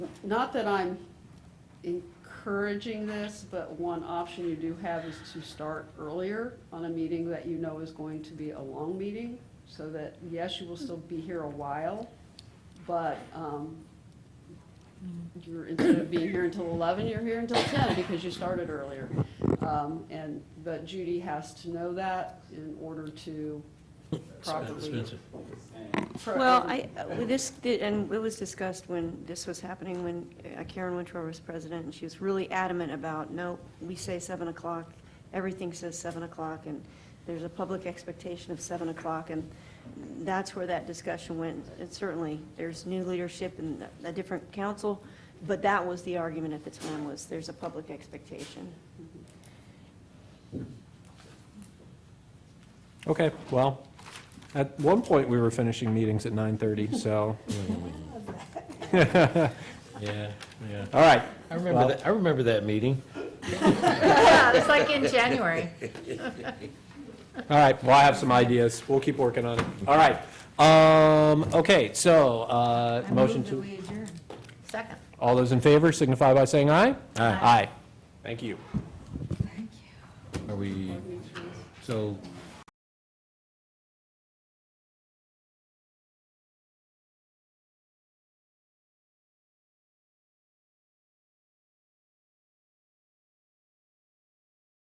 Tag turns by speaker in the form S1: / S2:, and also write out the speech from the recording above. S1: Not that I'm encouraging this, but one option you do have is to start earlier on a meeting that you know is going to be a long meeting, so that, yes, you will still be here a while, but um, you're, instead of being here until 11, you're here until 10 because you started earlier. Um, And, but Judy has to know that in order to properly.
S2: Expensive.
S1: pro-
S3: Well, I, uh, this, and it was discussed when this was happening, when uh, Karen Wintrow was president, and she was really adamant about, no, we say 7 o'clock, everything says 7 o'clock, and there's a public expectation of 7 o'clock, and that's where that discussion went. And certainly, there's new leadership and a different council, but that was the argument at the time, was there's a public expectation.
S4: Okay, well, at one point, we were finishing meetings at 9:30, so,
S2: Yeah, yeah.
S4: all right.
S2: I remember that, I remember that meeting.
S5: Yeah, it's like in January.
S4: All right, well, I have some ideas. We'll keep working on it. All right. Um, okay, so, uh, motion to,
S5: Second.
S4: all those in favor signify by saying aye? Aye. Aye. Thank you.
S2: Are we, so